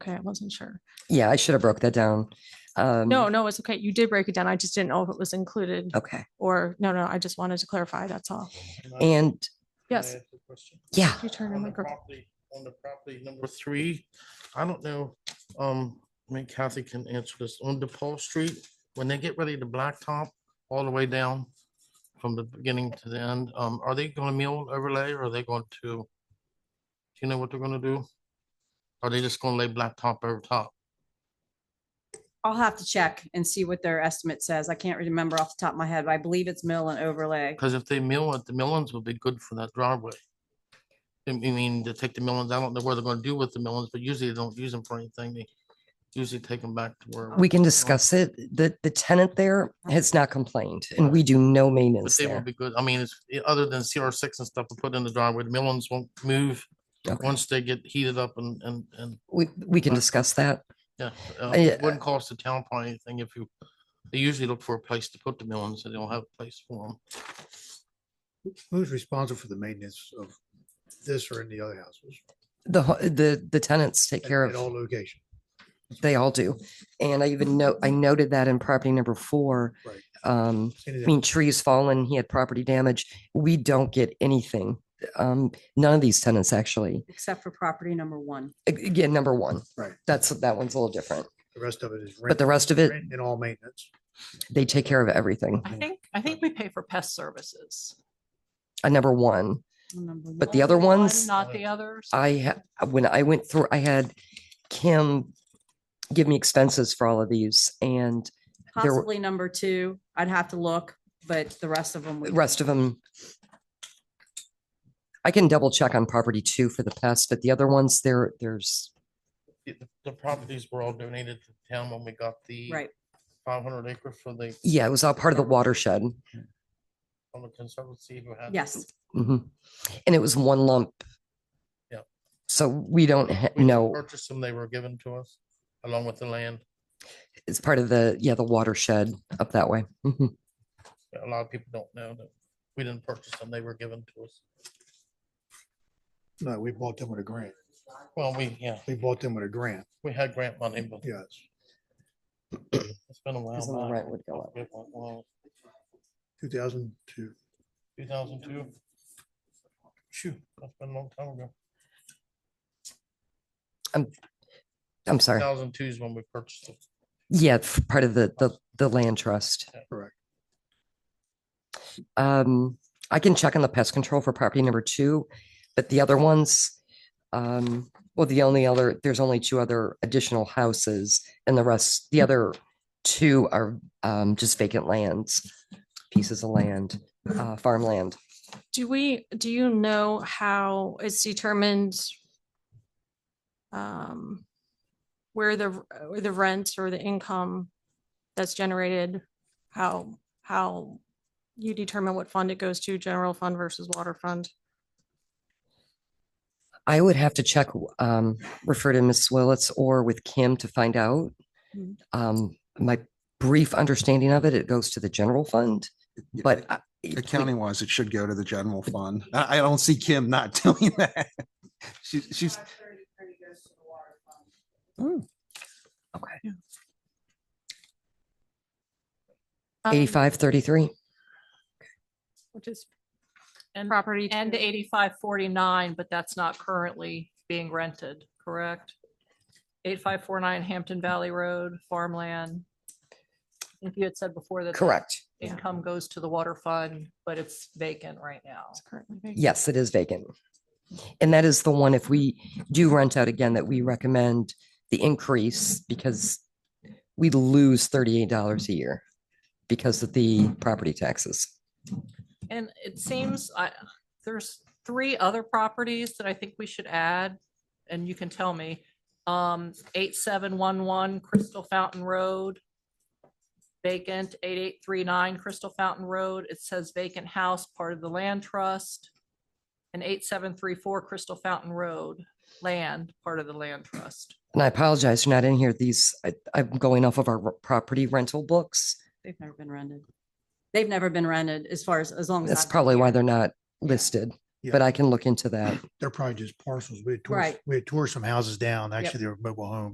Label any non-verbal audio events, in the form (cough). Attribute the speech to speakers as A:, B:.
A: Okay, I wasn't sure.
B: Yeah, I should have broke that down. Um, Oh.
A: No, no, it's okay. You did break it down. I just didn't know if it was included
B: Okay,
A: or, no, no, I just wanted to clarify, that's all.
C: Can I- can I
B: and
A: Yes,
C: ask a question?
B: yeah,
A: you turn your
C: On the
A: microphone.
C: property- on the property number three, I don't know, um, maybe Kathy can answer this, on DePaul Street, when they get ready to blacktop all the way down from the beginning to the end, um, are they gonna mill overlay or are they going to? Do you know what they're gonna do? Are they just gonna lay blacktop over top?
D: I'll have to check and see what their estimate says. I can't remember off the top of my head, but I believe it's mill and overlay.
C: Because if they mill it, the millings will be good for that driveway. I mean- I mean, to take the millings, I don't know what they're gonna do with the millings, but usually they don't use them for anything. They usually take them back to where.
B: we can discuss it. The, the tenant there has not complained and we do no
C: But
B: maintenance
C: they will
B: there.
C: be good. I mean, it's, i- other than CR six and stuff to put in the driveway, the millings won't move
B: Okay.
C: once they get heated up and, and, and,
B: We, we can
C: Right.
B: discuss that.
C: yeah. uh,
B: I-
C: It wouldn't cost the town probably anything if you, they usually look for a place to put the millings, and they don't have a place for them.
E: Who's responsible for the maintenance of this or any other houses?
B: The, ho- the, the tenants take
E: at-
B: care
E: At all
B: of,
E: locations.
B: they all do. And I even know, I noted that in property number four.
E: Right.
B: Um,
E: Any
B: I
E: of them.
B: mean, trees fallen, he had property damage. We don't get anything. Um, none of these tenants actually,
D: Except for property number one.
B: A- again, number one.
E: Right.
B: That's, that one's a little different,
E: The rest of it is.
B: but the rest of it,
E: And all maintenance.
B: they take care of everything.
F: I
E: Yeah.
F: think, I think we pay for pest services.
B: Uh, number one.
D: Number
B: But the
D: one.
B: other
F: Only one,
B: ones,
F: Not the others.
B: I, ha- when I went through, I had Kim give me expenses for all of these and there were-
D: Possibly number two. I'd have to look, but the rest of them. we
B: the rest of them. I can double check on property two for the pest, but the other ones there, there's,
C: The- the- The properties were all donated to the town when we got the
D: Right.
C: five hundred acre for the,
B: yeah, it was all part of the watershed.
C: from the conservancy who had.
D: Yes.
B: Mhm. And it was one lump.
C: Yep.
B: So we don't ha-
C: we
B: know,
C: Purchased them, they were given to us along with the land.
B: it's part of the, yeah, the watershed up that way. Mhm.
C: A lot of people don't know that we didn't purchase them, they were given to us.
E: No, we bought them with a grant.
C: Well, we, yeah,
E: We bought them with a grant,
C: we had grant money, but
E: yes.
C: it's been a
B: Because then the
C: while. back.
B: rent would go up.
E: Two thousand two.
C: Two thousand two. Shoot, that's been a long time ago.
B: I'm sorry.
C: Two thousand two is when we purchased it.
B: Yeah, it's part of the, the, the land trust.
C: Yeah.
E: Correct.
B: Um, I can check on the pest control for property number two, but the other ones, um, well, the only other, there's only two other additional houses and the rest, the other two are, um, just vacant lands, pieces of land, uh, farmland.
A: Do we, do you know how it's determined? um, Where the, r- where the rent or the income that's generated, how, how you determine what fund it goes to, general fund versus water fund?
B: I would have to check, um, refer to Ms. Willetts or with Kim to find out.
A: Mhm.
B: Um, my brief understanding of it, it goes to the general fund,
G: Yeah,
B: but.
G: a-
B: I- we-
G: Accounting wise, it should go to the general fund. I, I don't see Kim not (laughs) doing that. She's, she's. Oh,
A: Um,
B: Eighty-five thirty-three.
F: Which is. And,
A: Property.
F: and
A: to-
F: eighty-five forty-nine, but that's not currently being rented, correct? Eight-five four-nine Hampton Valley Road, farmland. If you had said before that. that
B: Correct.
F: Income goes to the water fund, but it's vacant right now.
A: it's currently vacant.
B: Yes, it is vacant. And that is the one, if we do rent out again, that we recommend the increase because we lose thirty-eight dollars a year because of the property taxes.
F: And it seems, I, there's three other properties that I think we should add, and you can tell me. Um, eight, seven, one, one Crystal Fountain Road. Vacant, eight, eight, three, nine Crystal Fountain Road. It says vacant house, part of the land trust. And eight, seven, three, four Crystal Fountain Road, land, part of the land trust.
B: And I apologize, you're not in here. These, I, I'm going off of our r- property rental books.
D: They've never been rented. They've never been rented as far as, as long as.
B: That's
D: I've been
B: probably
D: here.
B: why they're not listed,
E: Yeah.
B: but I can look into that.
E: They're probably just parcels. We had tore,
D: Right.
E: we had tore some houses down.
D: Yep.
E: Actually, they were mobile homes.